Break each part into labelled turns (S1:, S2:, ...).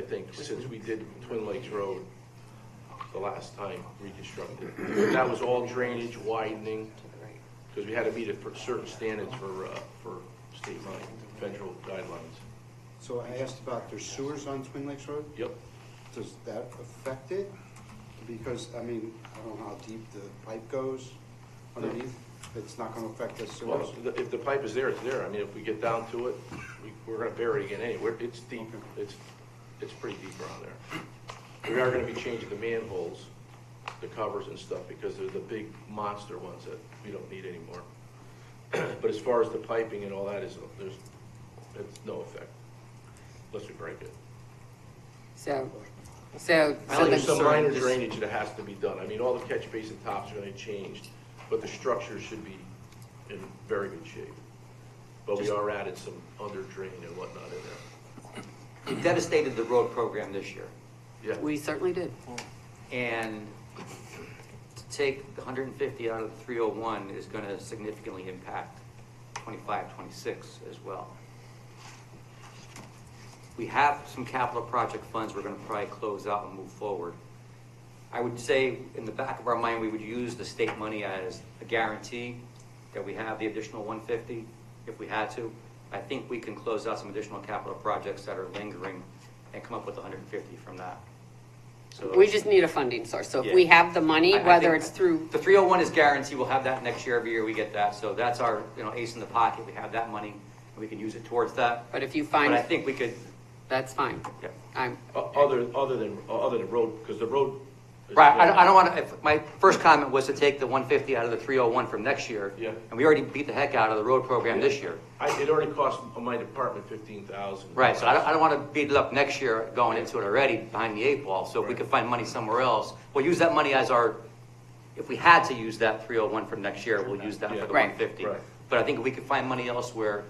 S1: I think since we did Twin Lakes Road the last time reconstructed, that was all drainage widening, because we had to meet a per- certain standards for, uh, for state money, federal guidelines.
S2: So I asked about their sewers on Twin Lakes Road.
S1: Yep,
S2: Does that affect it? Because, I mean, I don't know how deep the pipe goes underneath. It's not gonna affect the sewers.
S1: well, the- if the pipe is there, it's there, I mean, if we get down to it, we, we're gonna bury it again anyway, it's deep, it's, it's pretty deep around there. We are gonna be changing the manholes, the covers and stuff, because they're the big monster ones that we don't need anymore. But as far as the piping and all that is, there's, it's no effect, unless we break it.
S3: So, so.
S1: So There's
S3: so
S1: some
S3: the-
S1: minor drainage that has to be done. I mean, all the catch basin tops are gonna change, but the structure should be in very good shape. But we are added some under drain and whatnot in
S4: We devastated the road program this year,
S1: there. Yeah,
S3: We certainly did.
S4: and to take the hundred and fifty out of the three oh one is gonna significantly impact 25, 26 as well. We have some capital project funds we're gonna probably close out and move forward. I would say, in the back of our mind, we would use the state money as a guarantee that we have the additional one fifty, if we had to. I think we can close out some additional capital projects that are lingering and come up with hundred and fifty from that. So-
S3: We just need a funding source. So if we
S4: Yeah.
S3: have the money,
S4: I- I
S3: whether
S4: think
S3: it's through,
S4: The three oh one is guaranteed, we'll have that next year, every year we get that, so that's our, you know, ace in the pocket, we have that money, and we can use it towards that.
S3: but if you
S4: But I
S3: find,
S4: think we could,
S3: that's fine.
S4: yeah.
S3: I'm,
S1: O- other, other than, other than road, because the road. is-
S4: Right, I, don't- I don't wanna, if, my first comment was to take the one fifty out of the three oh one from next year.
S1: Yeah.
S4: And we already beat the heck out of the road program this year.
S1: I, it already cost my department fifteen thousand.
S4: Right, so I don't, I don't wanna beat it up next year going into it already behind the eight ball, so if we
S1: Right.
S4: could find money somewhere else, we'll use that money as our, if we had to use that three oh one from next year, we'll use that
S1: Yeah.
S4: for the
S3: Right.
S4: one fifty.
S1: Right.
S4: But I think if we could find money elsewhere,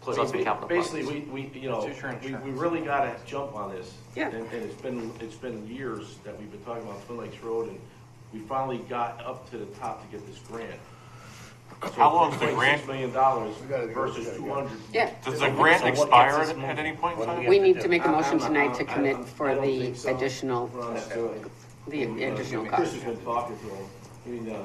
S4: close out some capital
S1: Basically,
S4: projects.
S1: we, we, you know, we, we really gotta jump on this.
S3: Yeah.
S1: And, and it's been, it's been years that we've been talking about Twin Lakes Road, and we finally got up to the top to get this grant. So
S5: How long's the
S1: $1.6
S5: grant?
S1: Million dollars
S6: We gotta go, we
S1: versus
S6: gotta go.
S1: two hundred.
S3: Yeah.
S5: Does the grant expire at, at any point in
S6: What do
S5: time?
S3: we need to make a motion
S1: I- I'm-
S3: tonight
S1: I-
S3: to
S1: I- I
S3: commit
S1: don't
S3: for the
S1: think so.
S3: additional,
S1: We're on that side.
S3: the additional
S1: Uh, Chris
S3: cost.
S1: has been talking to him, I mean, uh,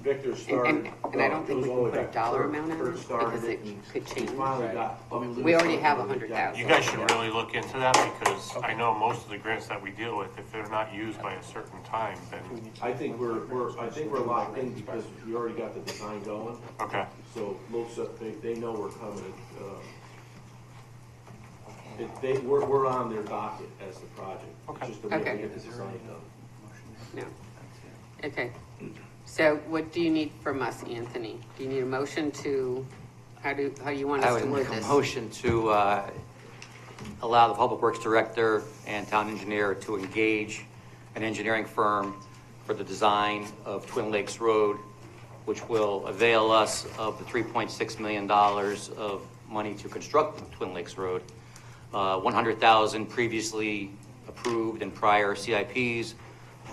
S1: Victor uh,
S3: and-
S1: started.
S3: and I don't think we
S1: it was all the
S3: can put a
S1: way back.
S3: dollar
S1: Kurt-
S3: amount on
S1: Kurt
S3: it,
S1: started
S3: because it
S1: and
S3: could
S1: we
S3: change.
S1: finally got- but
S3: We already
S1: lose
S3: have
S1: something we got.
S3: 100,000.
S5: You guys should really look into that because I know most of the grants that we deal with, if they're not used by a certain time, then,
S1: I think we're, we're, I think we're locked in because we already got the design going,
S5: okay.
S1: so LoSiP, they, they know we're coming, uh, it, they, we're, we're on their docket as the project. It's
S5: Okay.
S1: Just that we have to
S3: Okay.
S1: get the design done.
S3: No. Okay. So what do you need from us, Anthony? Do you need a motion to, how do, how do you want
S4: I
S3: us
S4: would
S3: to word
S4: make a
S3: this?
S4: motion to, uh, allow the Public Works Director and Town Engineer to engage an engineering firm for the design of Twin Lakes Road, which will avail us of the three point six million dollars of money to construct the Twin Lakes Road. Uh, one hundred thousand previously approved in prior CIPs,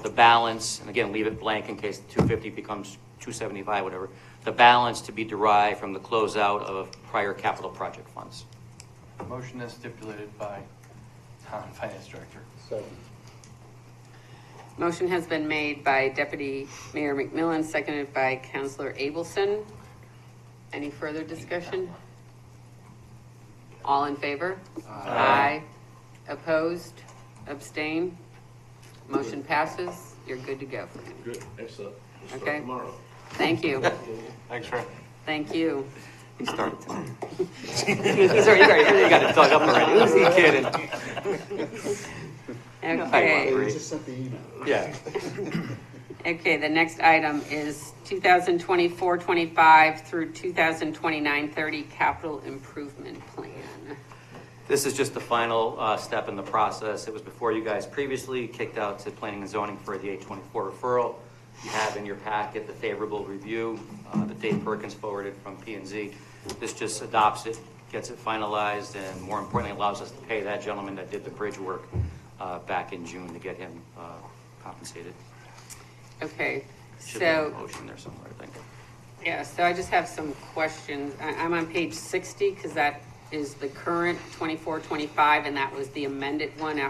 S4: the balance, and again, leave it blank in case two fifty becomes two seventy-five, whatever. The balance to be derived from the closeout of prior capital project funds.
S7: Motion as stipulated by town finance director.
S2: Second.
S3: Motion has been made by Deputy Mayor McMillan, seconded by Councilor Abelson. Any further discussion? All in favor? Aye. Opposed? Abstain? Motion passes. You're good to go.
S1: Good, excellent. We'll start
S3: Okay.
S1: Tomorrow.
S3: Thank you.
S5: Thanks, Rick.
S3: Thank you.
S4: He started tonight. He's already, he's already got it dug up already. Who's he kidding?
S3: Okay.
S2: They
S4: Great.
S2: just sent the email.
S4: Yeah.
S3: Okay, the next item is 2024-25 through 2029-30 capital improvement plan.
S4: This is just the final uh, step in the process. It was before you guys previously kicked out to planning and zoning for the 824 referral. You have in your packet the favorable review uh, that Dave Perkins forwarded from p and Z. This just adopts it, gets it finalized, and more importantly, allows us to pay that gentleman that did the bridge work uh, back in June to get him uh, compensated.
S3: Okay,
S4: Should be a
S3: so,
S4: motion there somewhere, I think.
S3: yeah, so I just have some questions. I, I'm on page sixty, because that is the current 24-25, and that was the amended one after